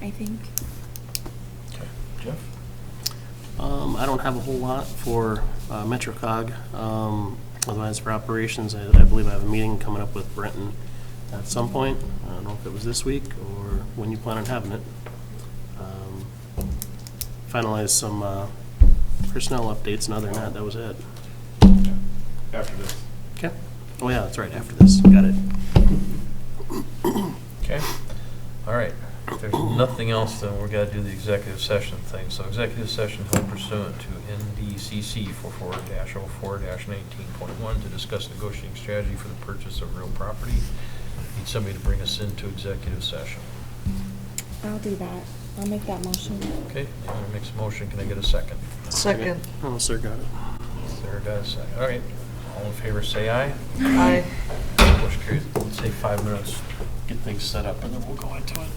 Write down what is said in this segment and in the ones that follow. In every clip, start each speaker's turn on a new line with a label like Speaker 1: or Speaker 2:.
Speaker 1: I think.
Speaker 2: Okay, Jeff?
Speaker 3: Um, I don't have a whole lot for uh, MetroCog. Um, Otherwise, for operations, I I believe I have a meeting coming up with Brenton at some point. I don't know if it was this week or when you plan on having it. Um, Finalize some uh, personnel updates, and other than that, that was it.
Speaker 2: After this.
Speaker 3: Okay? Oh, yeah, that's right, after this. Got it.
Speaker 2: Okay, all right. If there's nothing else, then we're gonna do the executive session thing. So executive session held pursuant to NDCC 44-04-19.1 to discuss negotiating strategy for the purchase of real property. Need somebody to bring us into executive session.
Speaker 1: I'll do that. I'll make that motion.
Speaker 2: Okay, Naomi makes a motion, can I get a second?
Speaker 4: Second.
Speaker 3: Oh, sir, got it.
Speaker 2: Sarah got a second, all right. All in favor, say aye.
Speaker 4: Aye.
Speaker 2: Motion carries, Let's say five minutes, get things set up, and then we'll go into it.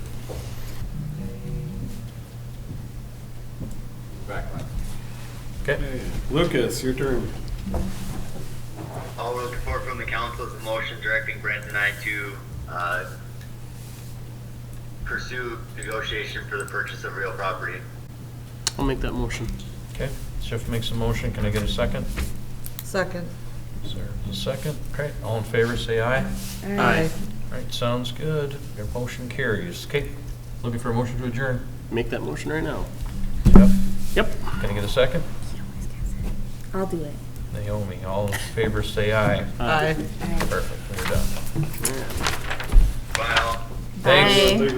Speaker 2: Okay?
Speaker 5: Lucas, your turn.
Speaker 6: All those support from the council is a motion directing Brent and I to uh, pursue negotiation for the purchase of real property.
Speaker 3: I'll make that motion.
Speaker 2: Okay, Schiff makes a motion, can I get a second?
Speaker 4: Second.
Speaker 2: Sarah's a second, okay, all in favor, say aye.
Speaker 3: Aye.
Speaker 2: All right, sounds good, your motion carries. Okay, looking for a motion to adjourn.
Speaker 3: Make that motion right now.
Speaker 2: Yep.
Speaker 3: Yep.
Speaker 2: Can I get a second?
Speaker 1: I'll do it.
Speaker 2: Naomi, all in favor, say aye.
Speaker 4: Aye.
Speaker 1: All right.
Speaker 2: Perfect, we're done.
Speaker 6: Well,
Speaker 2: Thanks.